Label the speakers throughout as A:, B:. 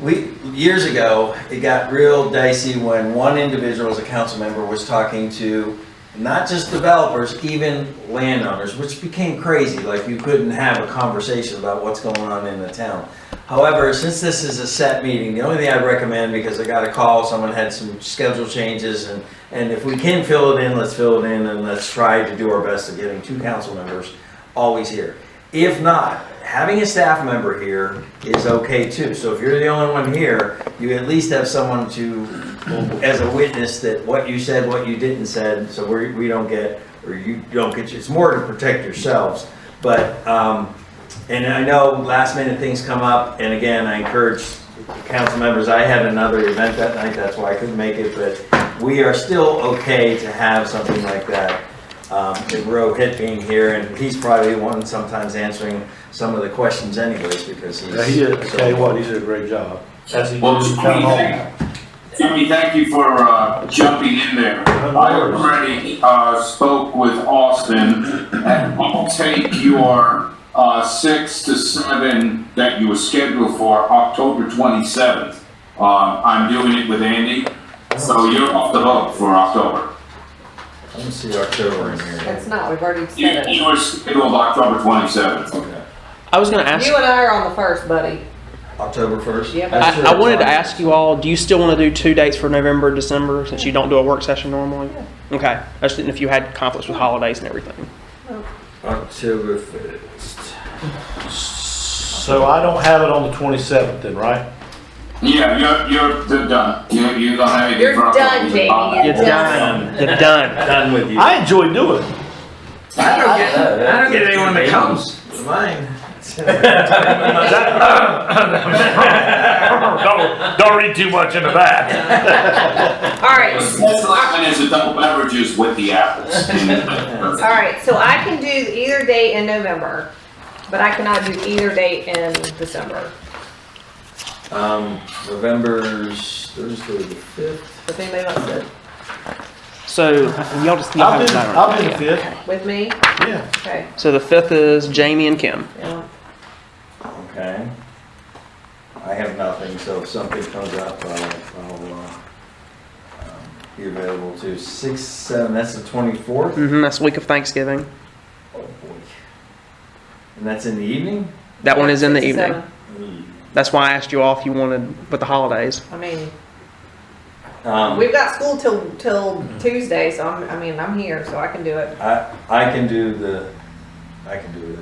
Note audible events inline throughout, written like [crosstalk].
A: we, years ago, it got real dicey when one individual as a council member was talking to not just developers, even landowners, which became crazy, like you couldn't have a conversation about what's going on in the town. However, since this is a set meeting, the only thing I'd recommend, because I got a call, someone had some schedule changes, and, and if we can fill it in, let's fill it in, and let's try to do our best at getting two council members always here. If not, having a staff member here is okay too. So if you're the only one here, you at least have someone to, as a witness that what you said, what you didn't said, so we, we don't get, or you don't get, it's more to protect yourselves. But, um, and I know last minute things come up, and again, I encourage council members, I had another event that night, that's why I couldn't make it, but we are still okay to have something like that. Um, and Rohit being here, and he's probably the one sometimes answering some of the questions anyways, because he's.
B: Yeah, he did, I tell you what, he did a great job. As he
C: Well,
B: did
C: Jimmy,
B: town hall.
C: thank, Jimmy, thank you for, uh, jumping in there. I already, uh, spoke with Austin, and I'll take your, uh, six to seven that you were scheduled for October twenty-seventh. Uh, I'm doing it with Andy, so you're off the hook for October.
A: Let me see October in here.
D: It's not, we've already
C: You,
D: said it.
C: you were scheduled October twenty-seventh.
A: Okay.
E: I was going to ask.
D: You and I are on the first, buddy.
A: October first?
D: Yep.
A: I'm sure
E: I, I
A: it's
E: wanted to
A: on.
E: ask you all. Do you still want to do two dates for November, and December, since you don't do a work session normally? Okay. I just didn't know if you had conflicts with holidays and everything.
A: October first.
B: So I don't have it on the twenty-seventh then, right?
C: Yeah, you're, you're, they're done. You, you don't have anything
D: You're
C: for
D: done,
C: October.
D: Jamie.
E: You're
D: Yes.
E: done. You're done.
A: Done with you.
B: I enjoy doing it.
C: I don't get, I don't get anyone that comes.
E: [laughs]
A: Mine. [laughs]
F: don't, don't read too much into that.
D: All right,
C: That's like when there's adult beverages with the apples.
D: all right, so I can do either date in November, but I cannot do either date in December.
A: Um, November's Thursday the fifth.
D: If anybody wants to,
E: So y'all just y'all
B: I'll
E: have
B: do,
E: that
B: I'll do the
E: right
B: fifth,
D: with me,
B: yeah.
D: okay.
E: So the fifth is Jamie and Kim.
D: yeah.
A: Okay. I have nothing, so if something comes up, I'll, I'll, uh, um, be available to six, seven, that's the twenty-fourth?
E: Mm-hmm, that's the week of Thanksgiving.
A: Oh boy. And that's in the evening?
E: That one is in the
D: Six to
E: evening.
D: seven.
G: Hmm.
E: That's why I asked you all if you wanted with the holidays.
D: I mean,
A: Um,
D: we've got school till, till Tuesday, so I'm, I mean, I'm here, so I can do it.
A: I, I can do the, I can do it.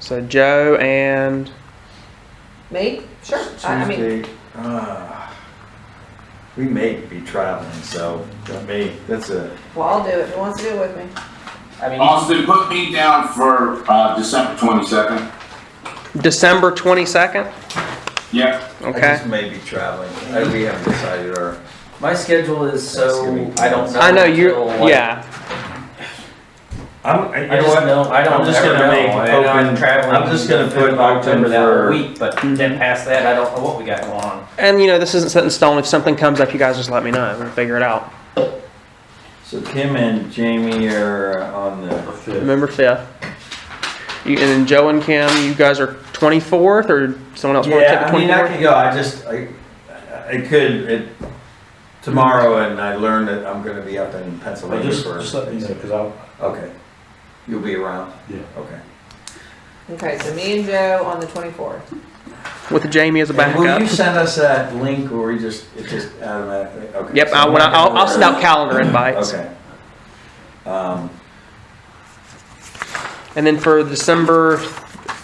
E: So Joe and
D: Me? Sure. I I mean,
A: Tuesday, ah, we may be traveling, so that may, that's a,
D: well, I'll do it. Who wants to do it with me?
C: Austin, put me down for uh, December 22nd.
E: December twenty second.
C: Yeah.
A: I
E: Okay.
A: just may be traveling. I- We haven't decided our.
G: My schedule is so I don't know.
E: I know you're.
G: until, like,
E: Yeah.
A: I'm,
G: I just know I don't.
A: I'm just
G: ever
A: gonna
G: know.
A: make
G: I know I'm
A: open-
G: traveling.
A: I'm just gonna
G: the fifth
A: put
G: of October
A: open for-
G: that week, but then past that, I don't know what we got going on.
E: And you know this isn't set in stone. If something comes up, you guys just let me know. We'll figure it out.
A: So Kim and Jamie are on the
E: November fifth. You, and then Joe and Kim, you guys are twenty fourth, or someone else want to take
A: Yeah,
E: the
A: I mean,
E: twenty
A: I
E: fourth?
A: could go, I just, I, I could, it, tomorrow, and I learned that I'm gonna be up in
B: Well,
A: Pennsylvania
B: just,
A: for.
B: just let me know, cause I'll,
A: Okay, you'll be around?
B: Yeah.
A: Okay.
D: Okay, so me and Joe on the twenty-fourth.
E: With Jamie as a
A: And Will you
E: backup.
A: send us that link, or we just, it just automatically, okay?
E: Yep, I, when I, I'll, I'll send out calendar invites.
A: Okay. Um,
E: And then for December,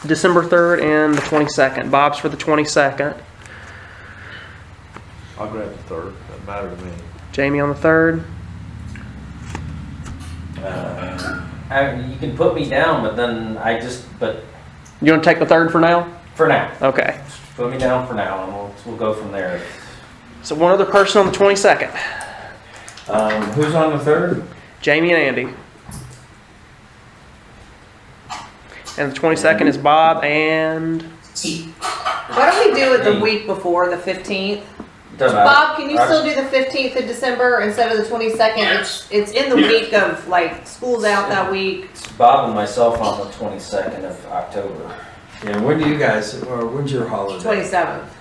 E: December third and the twenty second. Bob's for the twenty second.
B: I'll grab the third, doesn't matter to me.
E: Jamie on the third.
A: uh,
G: I, you can put me down, but then I just, but
E: You want to take the third for now?
G: for now,
E: Okay.
G: put me down for now, and we'll we'll go from there.
E: So one other person on the twenty second.
A: um, who's on the third?
E: Jamie and Andy. And the twenty second is Bob and
D: Why don't we do it the week before, the fifteenth?
G: Doesn't matter.
D: Bob, can you still do the fifteenth of December instead of the twenty-second? It's, it's in the
C: Yes.
D: week of, like, school's out that week.
G: It's Bob and myself on the 22nd of October.
A: Yeah, when do you guys, or when's your holiday?
D: Twenty-seventh.